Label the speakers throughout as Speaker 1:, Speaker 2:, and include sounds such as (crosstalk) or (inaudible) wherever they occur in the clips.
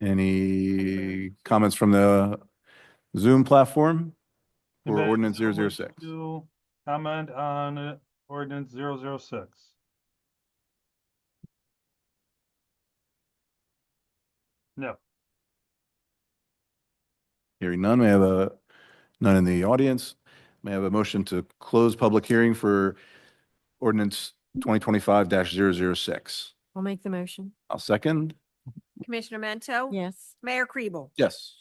Speaker 1: Any comments from the Zoom platform? Or
Speaker 2: Debate,
Speaker 1: ordinance
Speaker 2: someone
Speaker 1: 006?
Speaker 2: to Comment on uh, ordinance zero zero six. No,
Speaker 1: Hearing none, may I have a, none in the audience. May I have a motion to close public hearing for ordinance twenty twenty-five 6
Speaker 3: I'll make the motion.
Speaker 1: I'll second.
Speaker 4: Commissioner Mento?
Speaker 3: Yes.
Speaker 4: Mayor Kribel?
Speaker 1: Yes.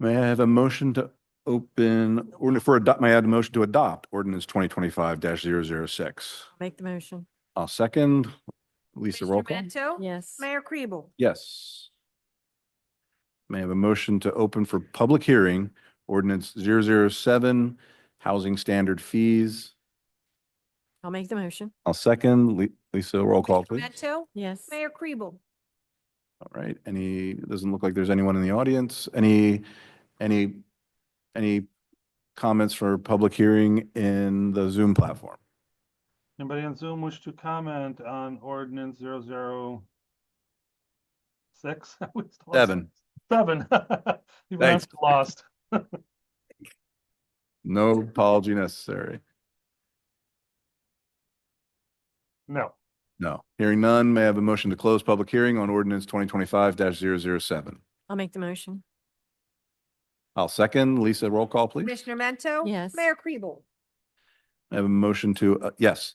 Speaker 1: May I have a motion to open, or for adopt, may I add a motion to adopt ordinance twenty twenty-five 6
Speaker 3: Make the motion.
Speaker 1: I'll second. Lisa,
Speaker 4: Commissioner
Speaker 1: roll call.
Speaker 4: Mento?
Speaker 3: Yes.
Speaker 4: Mayor Kribel?
Speaker 1: Yes. May I have a motion to open for public hearing, ordinance 007, housing standard fees.
Speaker 3: I'll make the motion.
Speaker 1: I'll second. Li- Lisa, roll call, please.
Speaker 4: Commissioner Mento?
Speaker 3: Yes.
Speaker 4: Mayor Kribel?
Speaker 1: All right, any, doesn't look like there's anyone in the audience. Any, any, any comments for public hearing in the Zoom platform?
Speaker 2: anybody on Zoom wish to comment on ordinance zero zero six? (laughs) I was lost.
Speaker 1: Seven.
Speaker 2: Seven. (laughs) Even I'm
Speaker 1: Thanks.
Speaker 2: Lost.
Speaker 1: No apology necessary.
Speaker 2: No,
Speaker 1: No. Hearing none, may I have a motion to close public hearing on ordinance twenty twenty-five 7 seven?
Speaker 3: I'll make the motion.
Speaker 1: I'll second. Lisa, roll call, please.
Speaker 4: Commissioner Mento?
Speaker 3: Yes.
Speaker 4: Mayor Kribel?
Speaker 1: I have a motion to, uh, yes.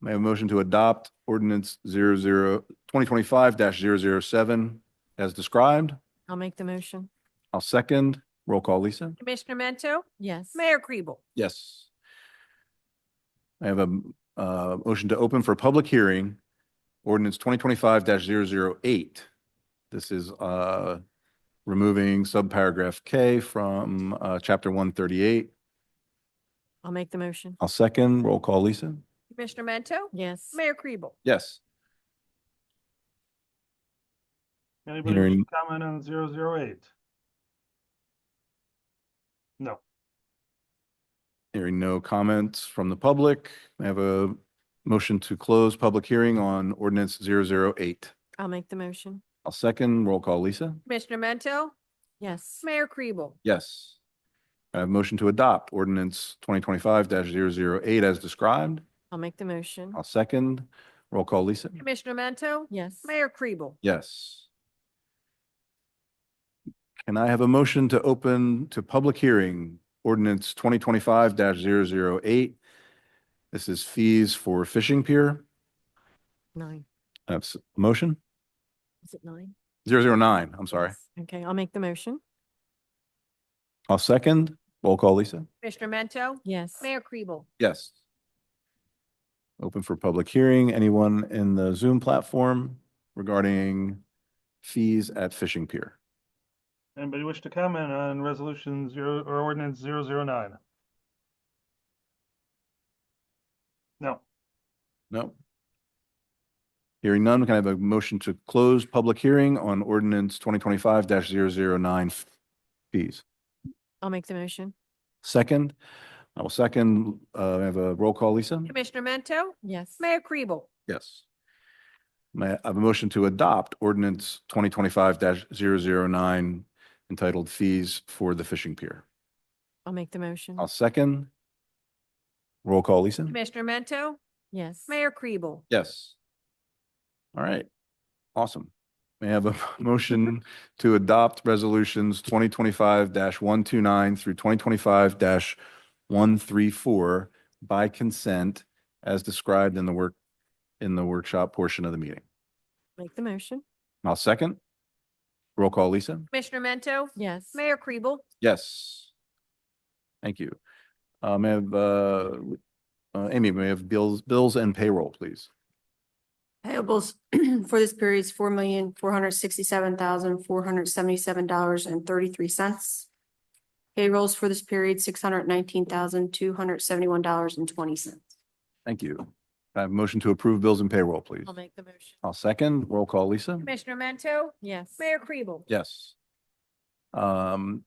Speaker 1: May I have a motion to adopt ordinance zero zero, twenty twenty-five dash zero zero seven as described?
Speaker 3: I'll make the motion.
Speaker 1: I'll second. Roll call, Lisa?
Speaker 4: Commissioner Mento?
Speaker 3: Yes.
Speaker 4: Mayor Kribel?
Speaker 1: Yes. I have a, uh, motion to open for public hearing, ordinance twenty twenty-five 8 This is, uh, removing subparagraph K from, uh, chapter one thirty-eight.
Speaker 3: I'll make the motion.
Speaker 1: I'll second. Roll call, Lisa?
Speaker 4: Commissioner Mento?
Speaker 3: Yes.
Speaker 4: Mayor Kribel?
Speaker 1: Yes.
Speaker 2: anybody wish to
Speaker 1: Hearing-
Speaker 2: comment on zero zero eight? No,
Speaker 1: Hearing no comments from the public, I have a motion to close public hearing on ordinance 008.
Speaker 3: I'll make the motion.
Speaker 1: I'll second, roll call, Lisa?
Speaker 4: Commissioner Mento?
Speaker 3: Yes.
Speaker 4: Mayor Kribel?
Speaker 1: Yes. I have motion to adopt ordinance 2025-008 as described.
Speaker 3: I'll make the motion.
Speaker 1: I'll second, roll call, Lisa?
Speaker 4: Commissioner Mento?
Speaker 3: Yes.
Speaker 4: Mayor Kribel?
Speaker 1: Yes. Can I have a motion to open to public hearing ordinance 2025-008? This is fees for fishing pier.
Speaker 3: Nine.
Speaker 1: I have s- motion?
Speaker 3: Is it nine?
Speaker 1: 009, I'm sorry.
Speaker 3: Yes. Okay, I'll make the motion.
Speaker 1: I'll second. Roll call, Lisa?
Speaker 4: Commissioner Mento?
Speaker 3: Yes.
Speaker 4: Mayor Kribel?
Speaker 1: Yes. Open for public hearing. Anyone in the Zoom platform regarding fees at fishing pier?
Speaker 2: anybody wish to comment on resolution zero or ordinance zero zero nine? No.
Speaker 1: No? Hearing none, can I have a motion to close public hearing on ordinance 2025-009 fees?
Speaker 3: I'll make the motion.
Speaker 1: Second, I will second, uh, I have a roll call, Lisa?
Speaker 4: Commissioner Mento?
Speaker 3: Yes.
Speaker 4: Mayor Kribel?
Speaker 1: Yes. May I have a motion to adopt ordinance twenty twenty-five 9 entitled fees for the fishing pier?
Speaker 3: I'll make the motion.
Speaker 1: I'll second. Roll call, Lisa?
Speaker 4: Commissioner Mento?
Speaker 3: Yes.
Speaker 4: Mayor Kribel?
Speaker 1: Yes. All right. Awesome. May I have a (laughs) motion to adopt resolutions twenty twenty-five one two nine through twenty twenty-five one three four by consent as described in the work, in the workshop portion of the meeting?
Speaker 3: Make the motion.
Speaker 1: I'll second. Roll call, Lisa?
Speaker 4: Commissioner Mento?
Speaker 3: Yes.
Speaker 4: Mayor Kribel?
Speaker 1: Yes. Thank you. Uh, may I have, uh, uh, Amy, may I have bills, bills and payroll, please?
Speaker 5: Payables (clears throat) for this period is four million, four hundred sixty-seven thousand, four hundred seventy-seven dollars and thirty-three cents. Payrolls for this period, six hundred nineteen thousand, two hundred seventy-one dollars and twenty cents.
Speaker 1: Thank you. Can I have a motion to approve bills and payroll, please.
Speaker 3: I'll make the motion.
Speaker 1: I'll second. Roll call, Lisa?
Speaker 4: Commissioner Mento?
Speaker 3: Yes.
Speaker 4: Mayor Kribel?
Speaker 1: Yes. Um,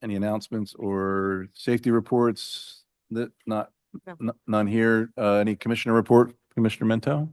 Speaker 1: any announcements or safety reports that not,
Speaker 3: No.
Speaker 1: n- none here? Uh, any commissioner report, Commissioner Mento?